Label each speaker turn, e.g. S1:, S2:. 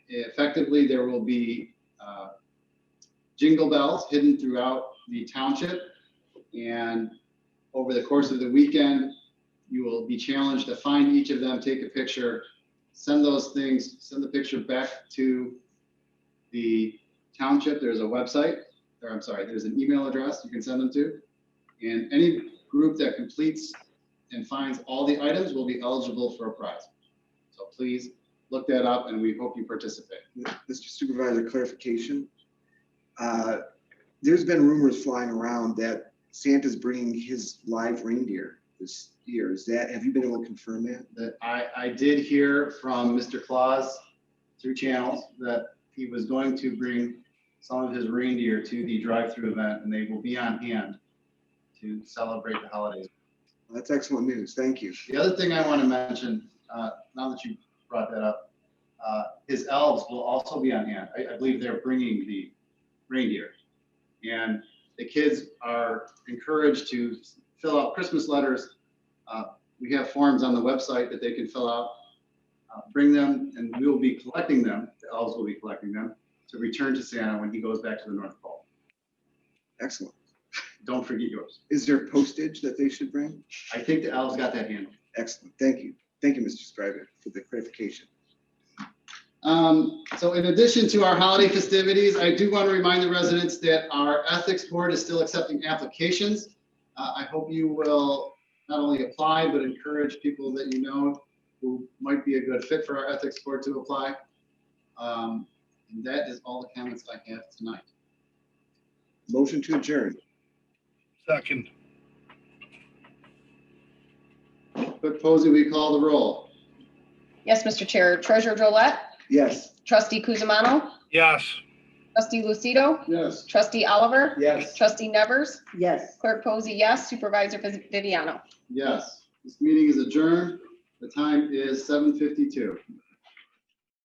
S1: effectively, there will be uh, jingle bells hidden throughout the township. And over the course of the weekend, you will be challenged to find each of them, take a picture, send those things, send the picture back to the township. There's a website, or I'm sorry, there's an email address you can send them to. And any group that completes and finds all the items will be eligible for a prize. So please look that up and we hope you participate.
S2: Mr. Supervisor, clarification. Uh, There's been rumors flying around that Santa's bringing his live reindeer this year. Is that, have you been able to confirm that?
S1: That I, I did hear from Mr. Claus through channels that he was going to bring some of his reindeer to the drive-through event and they will be on hand to celebrate the holidays.
S2: Well, That's excellent news. Thank you.
S1: The other thing I want to mention, uh, now that you brought that up, uh, his elves will also be on hand. I, I believe they're bringing the reindeer. And the kids are encouraged to fill out Christmas letters. Uh, We have forms on the website that they can fill out. Uh, Bring them, and we will be collecting them, the elves will be collecting them, to return to Santa when he goes back to the North Pole.
S2: Excellent.
S1: Don't forget yours.
S2: Is there postage that they should bring?
S1: I think the elves got that handled.
S2: Excellent. Thank you. Thank you, Mr. Scriver, for the clarification.
S1: Um, so in addition to our holiday festivities, I do want to remind the residents that our ethics board is still accepting applications. Uh, I hope you will not only apply, but encourage people that you know who might be a good fit for our ethics board to apply. Um, and that is all the comments I have tonight.
S2: Motion to adjourn.
S3: Second,
S1: But Posey, we call the roll.
S4: Yes, Mr. Chair. Treasurer Drollet,
S2: Yes.
S4: trustee Kuzma,
S3: yes.
S4: trustee Lucido,
S1: Yes.
S4: trustee Oliver,
S2: Yes.
S4: trustee Nevers,
S5: Yes.
S4: clerk Posey, yes, supervisor Viviano.
S1: Yes, this meeting is adjourned. The time is seven fifty-two.